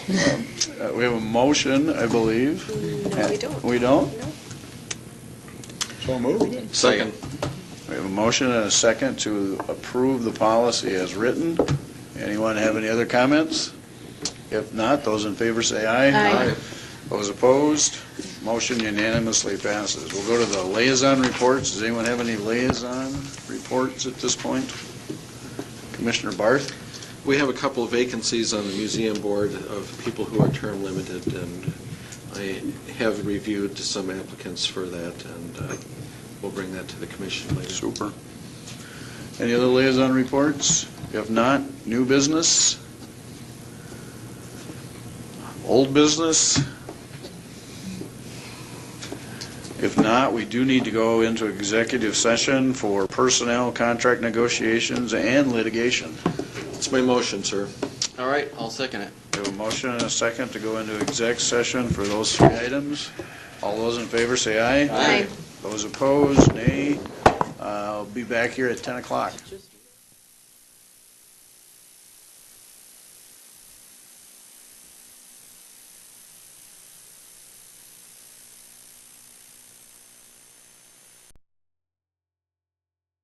Uh, We have a motion, I believe. No, we don't. We don't? No. So moved. Second. We have a motion and a second to approve the policy as written. Anyone have any other comments? If not, those in favor say aye. Aye. Aye. Those opposed, motion unanimously passes. We'll go to the liaison reports. Does anyone have any liaison reports at this point? Commissioner Barth? We have a couple of vacancies on the museum board of people who are term limited, and I have reviewed some applicants for that, and uh, we'll bring that to the commission later. Super. Any other liaison reports? If not, new business? Old business? If not, we do need to go into executive session for personnel, contract negotiations, and litigation. It's my motion, sir. All right, I'll second it. We have a motion and a second to go into exec session for those three items. All those in favor say aye. Aye. Those opposed, nay. Uh, I'll be back here at 10 o'clock. Just